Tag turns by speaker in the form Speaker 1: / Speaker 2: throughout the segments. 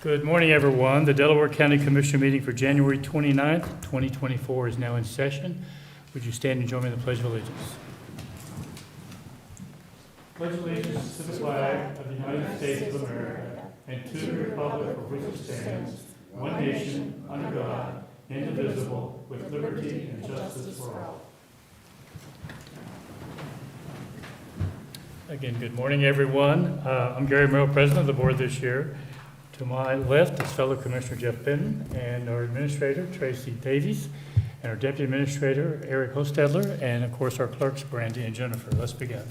Speaker 1: Good morning, everyone. The Delaware County Commission meeting for January 29th, 2024 is now in session. Would you stand and join me in the Pledge of Allegiance? Pledge allegiance to the flag of the United States of America and to the republic for which it stands, one nation, under God, indivisible, with liberty and justice for all. Again, good morning, everyone. Uh, I'm Gary Merrill, President of the Board this year. To my left is fellow Commissioner Jeff Benton and our Administrator Tracy Davies and our Deputy Administrator Eric Hostedler and of course our clerks Brandy and Jennifer. Let's begin.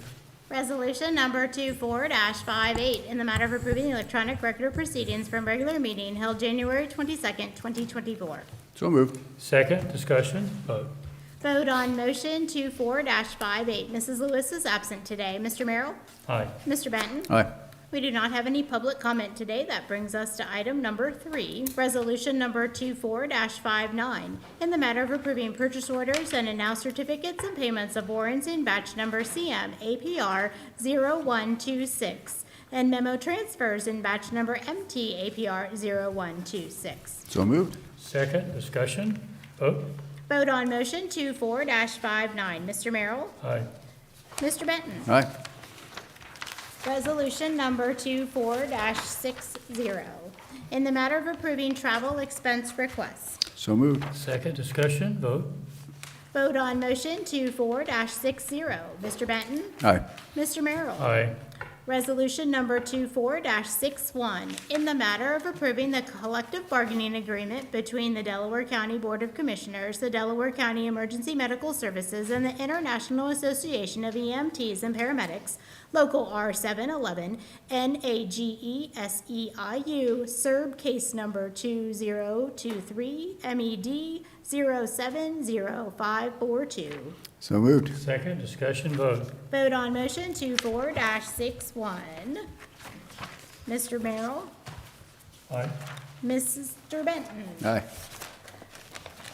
Speaker 2: Resolution number 24-58, in the matter of approving the electronic record of proceedings from regular meeting held January 22nd, 2024.
Speaker 3: So moved.
Speaker 1: Second, discussion, vote.
Speaker 2: Vote on motion 24-58. Mrs. Lewis is absent today. Mr. Merrill?
Speaker 1: Aye.
Speaker 2: Mr. Benton?
Speaker 3: Aye.
Speaker 2: We do not have any public comment today. That brings us to item number three, resolution number 24-59, in the matter of approving purchase orders and announced certificates and payments of warrants in batch number CM APR 0126 and memo transfers in batch number MT APR 0126.
Speaker 3: So moved.
Speaker 1: Second, discussion, vote.
Speaker 2: Vote on motion 24-59. Mr. Merrill?
Speaker 1: Aye.
Speaker 2: Mr. Benton?
Speaker 3: Aye.
Speaker 2: Resolution number 24-60, in the matter of approving travel expense requests.
Speaker 3: So moved.
Speaker 1: Second, discussion, vote.
Speaker 2: Vote on motion 24-60. Mr. Benton?
Speaker 3: Aye.
Speaker 2: Mr. Merrill?
Speaker 1: Aye.
Speaker 2: Resolution number 24-61, in the matter of approving the collective bargaining agreement between the Delaware County Board of Commissioners, the Delaware County Emergency Medical Services, and the International Association of EMTs and Paramedics, Local R711, E NAGESEIU, SERB case number 2023 MED 070542.
Speaker 3: So moved.
Speaker 1: Second, discussion, vote.
Speaker 2: Vote on motion 24-61. Mr. Merrill?
Speaker 1: Aye.
Speaker 2: Mr. Benton?
Speaker 3: Aye.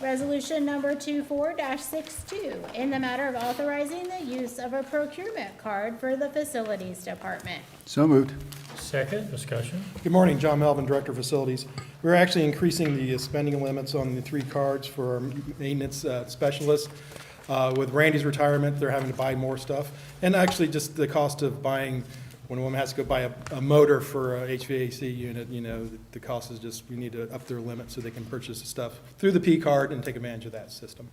Speaker 2: Resolution number 24-62, in the matter of authorizing the use of a procurement card for the Facilities Department.
Speaker 3: So moved.
Speaker 1: Second, discussion,
Speaker 4: Good morning, John Melvin, Director of Facilities. We're actually increasing the uh, spending limits on the three cards for our maintenance uh, specialists. Uh, With Randy's retirement, they're having to buy more stuff. And actually, just the cost of buying, when a woman has to go buy a- a motor for a HVAC unit, you know, the cost is just, we need to up their limit so they can purchase the stuff through the P card and take advantage of that system.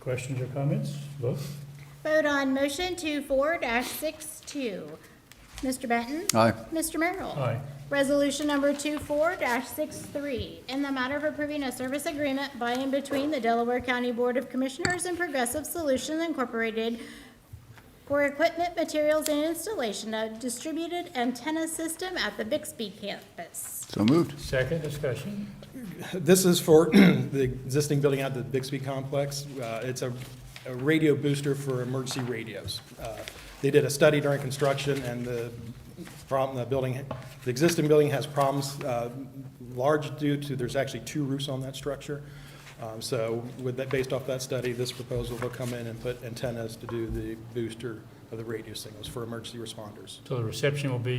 Speaker 1: questions or comments, vote.
Speaker 2: Vote on motion 24-62. Mr. Benton?
Speaker 3: Aye.
Speaker 2: Mr. Merrill?
Speaker 1: Aye.
Speaker 2: Resolution number 24-63, in the matter of approving a service agreement by and between the Delaware County Board of Commissioners and Progressive Solutions Incorporated for equipment, materials, and installation of distributed antenna system at the Bixby campus.
Speaker 3: So moved.
Speaker 1: Second, discussion,
Speaker 4: This is for the existing building out at the Bixby Complex. Uh, It's a a radio booster for emergency radios. Uh, They did a study during construction, and the problem, the building, the existing building has problems uh, large due to, there's actually two roofs on that structure. Um, So with that, based off that study, this proposal will come in and put antennas to do the booster of the radio signals for emergency responders.
Speaker 1: so the reception will be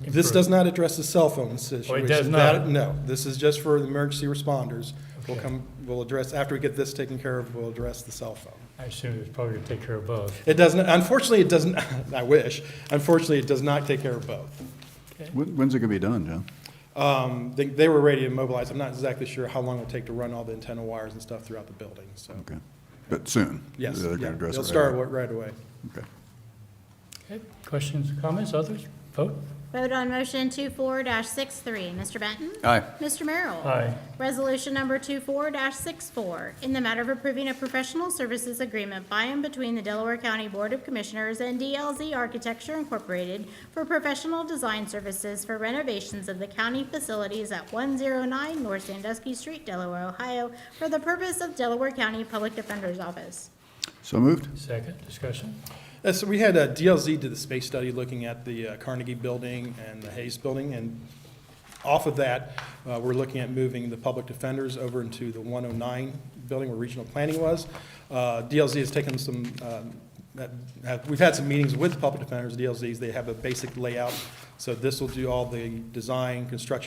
Speaker 1: improved.
Speaker 4: This does not address the cell phone situation.
Speaker 1: Oh, it does
Speaker 4: That-
Speaker 1: not?
Speaker 4: No, this is just for the emergency responders. We'll
Speaker 1: Okay.
Speaker 4: come, we'll address, after we get this taken care of, we'll address the cell phone.
Speaker 1: I assume it's probably gonna take care of both.
Speaker 4: It doesn't, unfortunately, it doesn't, I wish, unfortunately, it does not take care of both.
Speaker 3: When- When's it gonna be done, John?
Speaker 4: Um, They, they were ready to mobilize, I'm not exactly sure how long it'll take to run all the antenna wires and stuff throughout the building, so.
Speaker 3: Okay. But soon.
Speaker 4: Yes,
Speaker 3: They're gonna
Speaker 4: yeah,
Speaker 3: address
Speaker 4: they'll
Speaker 3: it right
Speaker 4: start
Speaker 3: away.
Speaker 4: wa- right away.
Speaker 3: Okay.
Speaker 1: Okay, questions, comments, others? Vote?
Speaker 2: Vote on motion 24-63. Mr. Benton?
Speaker 3: Aye.
Speaker 2: Mr. Merrill?
Speaker 1: Aye.
Speaker 2: Resolution number 24-64, in the matter of approving a professional services agreement by and between the Delaware County Board of Commissioners and DLZ Architecture Incorporated for professional design services for renovations of the county facilities at 109 North Sandusky Street, Delaware, Ohio, for the purpose of Delaware County Public Defender's Office.
Speaker 3: So moved.
Speaker 1: Second, discussion?
Speaker 4: Uh, So we had a DLZ did the space study looking at the uh, Carnegie Building and the Hayes Building, and off of that, uh, we're looking at moving the public defenders over into the 109 building where regional planning was. Uh, DLZ has taken some, um, that- that- we've had some meetings with public defenders, DLZs, they have a basic layout, so this will do all the design, construction.